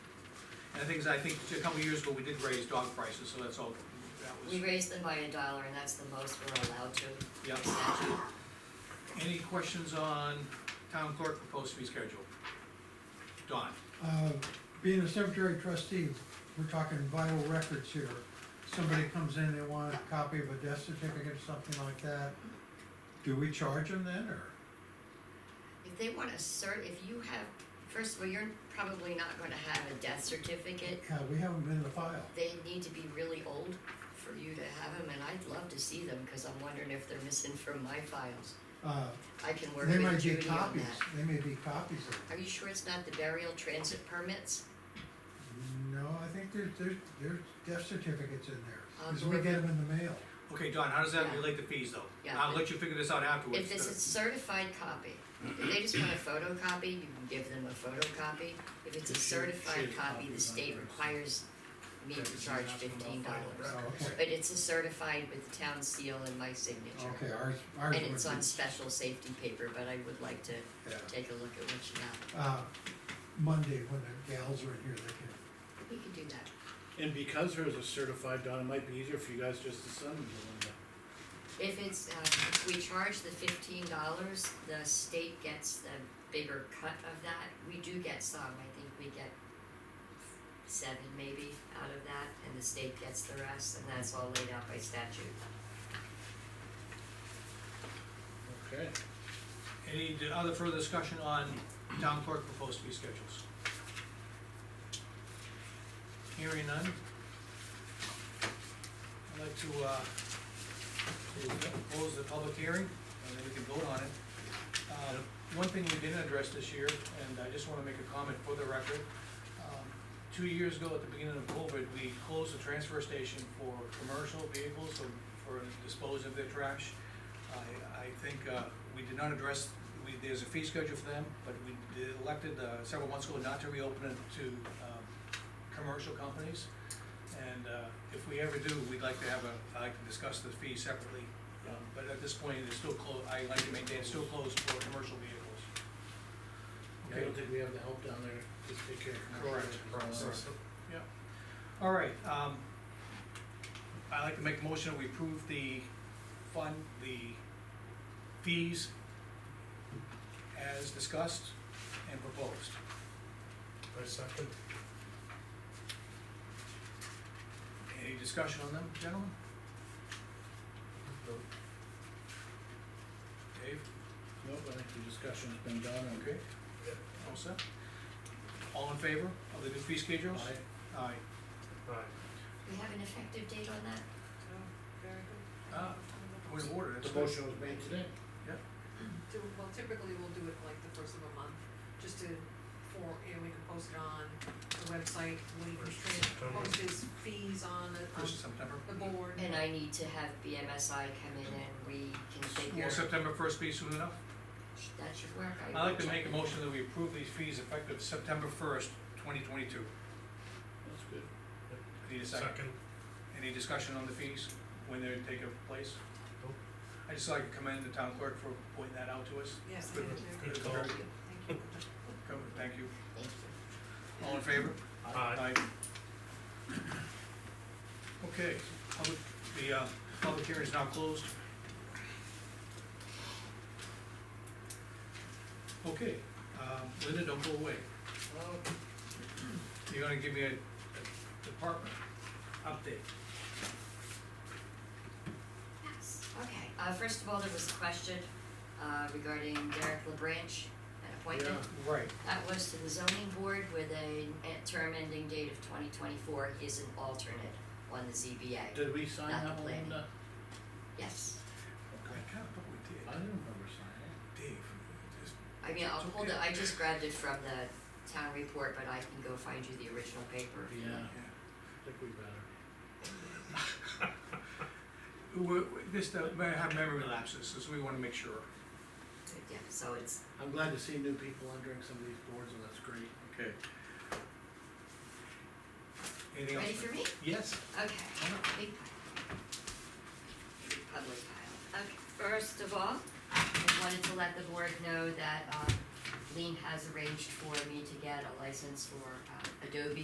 The thing is, I think a couple of years ago, we did raise dog prices, so that's all, that We was, raised them by a dollar and that's the most we're allowed to. yeah. by statute. Any questions on town clerk proposed fee schedule? Don, Uh, Being a cemetery trustee, we're talking vital records here. Somebody comes in, they want a copy of a death certificate or something like that. Do we charge them then, or? If they want to cert, if you have, first of all, you're probably not gonna have a death certificate. Yeah, we have them in the file. They need to be really old for you to have them and I'd love to see them, cause I'm wondering if they're missing from my files. Uh, I can work They with might be Judy on copies, that. they may be copies of them. Are you sure it's not the burial transit permits? No, I think there's, there's, there's death certificates in there, I'll because we deliver- get them in the mail. okay, Don, how does that Yeah. relate to fees though? Yeah. I'll let you figure this out afterwards. If it's a certified copy, if they just want a photocopy, you can give them a photocopy. If it's a certified copy, the state requires me to charge fifteen dollars. Oh, okay, But it's a certified with the town seal and my signature. okay, ours, ours And would be. it's on special safety paper, but I would like to yeah. take a look at what you got. Uh, Monday, when the gals are in here, they We can do that. And because hers is certified, Don, it might be easier for you guys just to send them to Linda. If it's, uh, if we charge the fifteen dollars, the state gets the bigger cut of that. We do get some, I think we get seven maybe out of that, and the state gets the rest, and that's all laid out by statute. Okay. Any d- other further discussion on town clerk proposed fee schedules? Hearing none? I'd like to, uh, to close the public hearing, and then we can vote on it. Uh, One thing we didn't address this year, and I just wanna make a comment for the record. um, Two years ago, at the beginning of COVID, we closed the transfer station for commercial vehicles to- for dispose of their trash. I, I think, uh, we did not address, we, there's a fee schedule for them, but we did- elected, uh, several months ago not to reopen it to, um, commercial companies. And, uh, if we ever do, we'd like to have a, I'd like to discuss the fee separately. Um, But at this point, it's still closed, I like to maintain it's still closed for commercial vehicles. I Okay, don't think we have the help down there to take care of. Correct. Correct. all right, um, I'd like to make a motion, that we approve the fund, the fees as discussed and proposed. I second. Any discussion on them, gentlemen? No. Dave, Nope, I think the discussion's been done, okay? okay, all set? All in favor of the new fee schedules? Aye. We have an effective date on that? Oh, Uh, point of order, that's The motion was made today. Do, well, typically we'll do it like the first of a month, just to, for, you know, we can post it on the website, we can tra- post his fees on the, on First of September. the board. And I need to have BMSI come in and we can figure, Will September first be soon enough? that should work. I I'd like will to make a check. motion that we approve these fees effective September first, twenty twenty-two. That's good. Need a second? Any discussion on the fees, when they're taking place? Nope. I'd just like to commend the town clerk for pointing that out to us. Yes, thank you, Good It's call. very- thank you. come- Thank you. Thank you. All in favor? Aye. Okay, public, the, uh, public hearing is now closed. Okay, um, Linda, don't go away. You're gonna give me a a department update. Yes, okay. Uh, first of all, there was a question, uh, regarding Derek LaBranch, an appointment. Right. That was to the zoning board with a a term ending date of twenty twenty-four, he is an alternate on the ZBA, Did we sign Not that the one? planning. Linda? yes. I kinda thought we did. I didn't remember signing Dave, just, I mean, I'll It's hold okay. it, I just grabbed it from the town report, but I can go find you the original paper. it. Yeah, yeah. I think we better. We're, we're- this, uh, may have memory lapses, so we wanna make sure. Yeah, so it's, I'm glad to see new people entering some of these boards, and that's great. Okay. Anything else? ready for me? Yes. Okay, big pile. Big Public pile. Okay, first of all, I wanted to let the board know that, um, Lean has arranged for me to get a license for, uh, Adobe